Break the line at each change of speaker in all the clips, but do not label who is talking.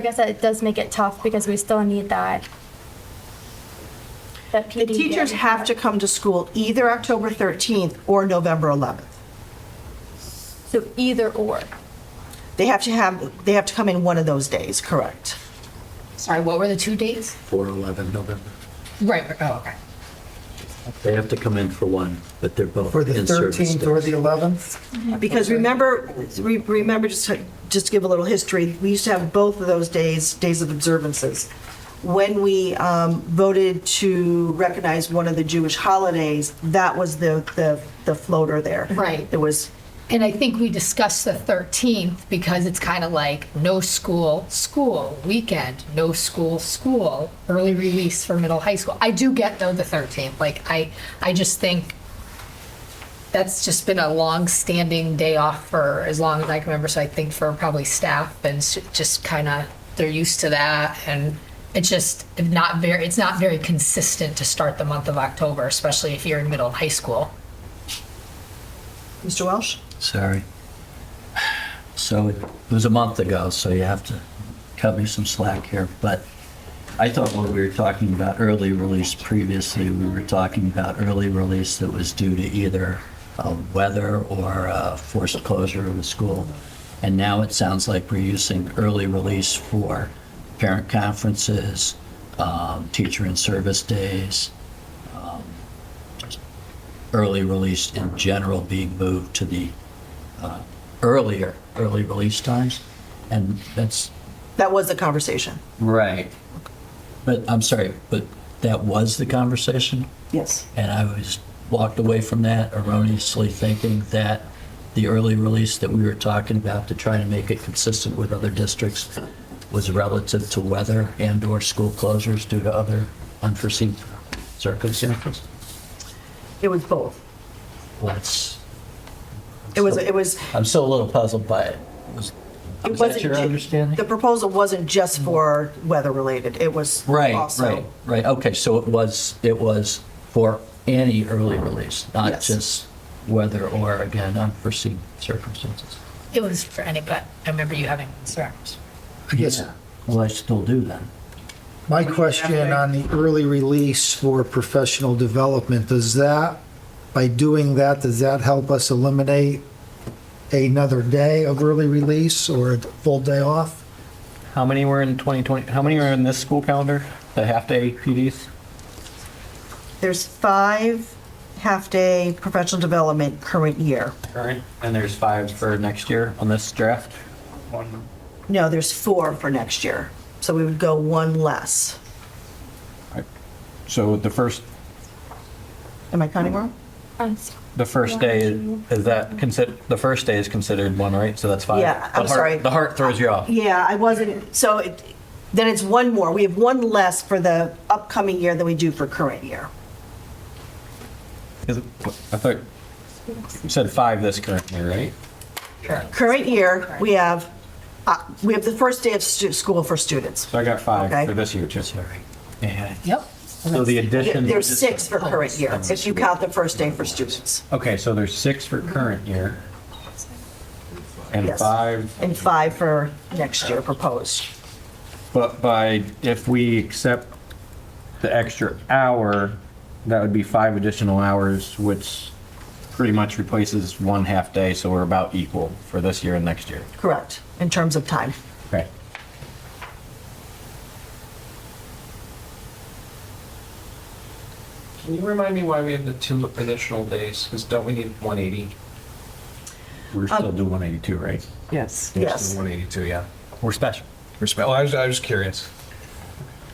I guess that does make it tough because we still need that. That PD.
The teachers have to come to school either October 13th or November 11th.
So either or.
They have to have, they have to come in one of those days, correct?
Sorry, what were the two dates?
4/11 November.
Right, oh, okay.
They have to come in for one, but they're both
For the
in service
13th or
days.
the 11th?
Because remember, re- remember, just to, just to give a little history, we used to have both of those days, days of observances. When we um, voted to recognize one of the Jewish holidays, that was the, the, the floater there.
Right.
There was,
And I think we discussed the 13th because it's kind of like no school, school, weekend, no school, school, early release for middle high school. I do get though the 13th, like I, I just think that's just been a long-standing day off for as long as I can remember. So I think for probably staff and s- just kind of, they're used to that. And it's just not very, it's not very consistent to start the month of October, especially if you're in middle and high school.
Mr. Welsh?
Sorry. So it was a month ago, so you have to cut me some slack here. But I thought when we were talking about early release previously, we were talking about early release that was due to either uh, weather or uh, forced closure of the school. And now it sounds like we're using early release for parent conferences, um, teacher and service days, um, early release in general being moved to the uh, earlier early release times, and that's
That was the conversation.
right. But I'm sorry, but that was the conversation,
Yes.
and I was walked away from that erroneously thinking that the early release that we were talking about to try to make it consistent with other districts was relative to weather and or school closures due to other unforeseen circumstances.
It was both.
Let's.
It was, it was,
I'm still a little puzzled by it. Was,
It
was
wasn't
that your
ju-
understanding? Mm-hmm.
The proposal wasn't just for weather-related, it was
right,
also.
right, right. Okay, so it was it was for any early release, not
Yes.
just whether or again unforeseen circumstances.
It was for any, but I remember you having concerns.
Yes.
Well, I still do then.
My question on the early release for professional development, does that, by doing that, does that help us eliminate another day of early release or a full day off?
How many were in 2020? How many are in this school calendar? The half day PDs?
There's five half-day professional development current year.
Current. And there's five for next year on this draft? One.
No, there's four for next year, so we would go one less.
So the first,
Am I counting wrong?
Um,
the first day, is that considered, the first day is considered one, right? So that's five.
Yeah, I'm
The heart-
sorry.
The heart throws you off.
Yeah, I wasn't, so it- then it's one more. We have one less for the upcoming year than we do for current year.
Is it- I thought you said five this current year, right?
Sure.
Current year, we have, uh, we have the first day of stu- school for students.
So I got
Okay.
five for this year too.
Sorry. Yeah.
Yep.
So the addition.
There's six for
Oh,
current year, if you count the first day for students,
Okay, so there's six for current year. And
Yes.
five
and five for next year proposed.
But by, if we accept the extra hour, that would be five additional hours, which pretty much replaces one half day, so we're about equal for this year and next year.
Correct, in terms of time.
Okay.
Can you remind me why we have the two additional days? Because don't we need 180?
We're still doing 182, right?
Yes.
Yes.
182, yeah.
We're special.
We're special. I was, I was curious.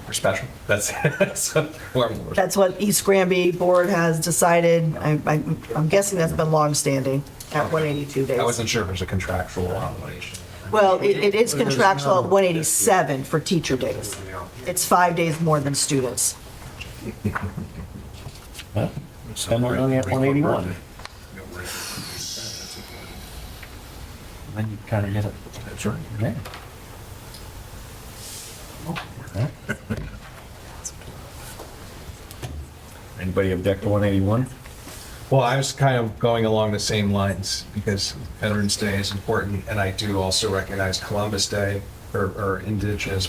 We're special. That's, that's where I'm-
That's what East Granby Board has decided. I- I- I'm guessing that's been longstanding at 182
I
days.
wasn't sure if it was a contractual obligation.
Well, it it is contractual at 187 for teacher days. It's five days more than students.
Then we're only at 181. Then you kind of get it. That's right. Anybody object to 181?
Well, I was kind of going along the same lines because Veterans Day is important, and I do also recognize Columbus Day, or, or indigenous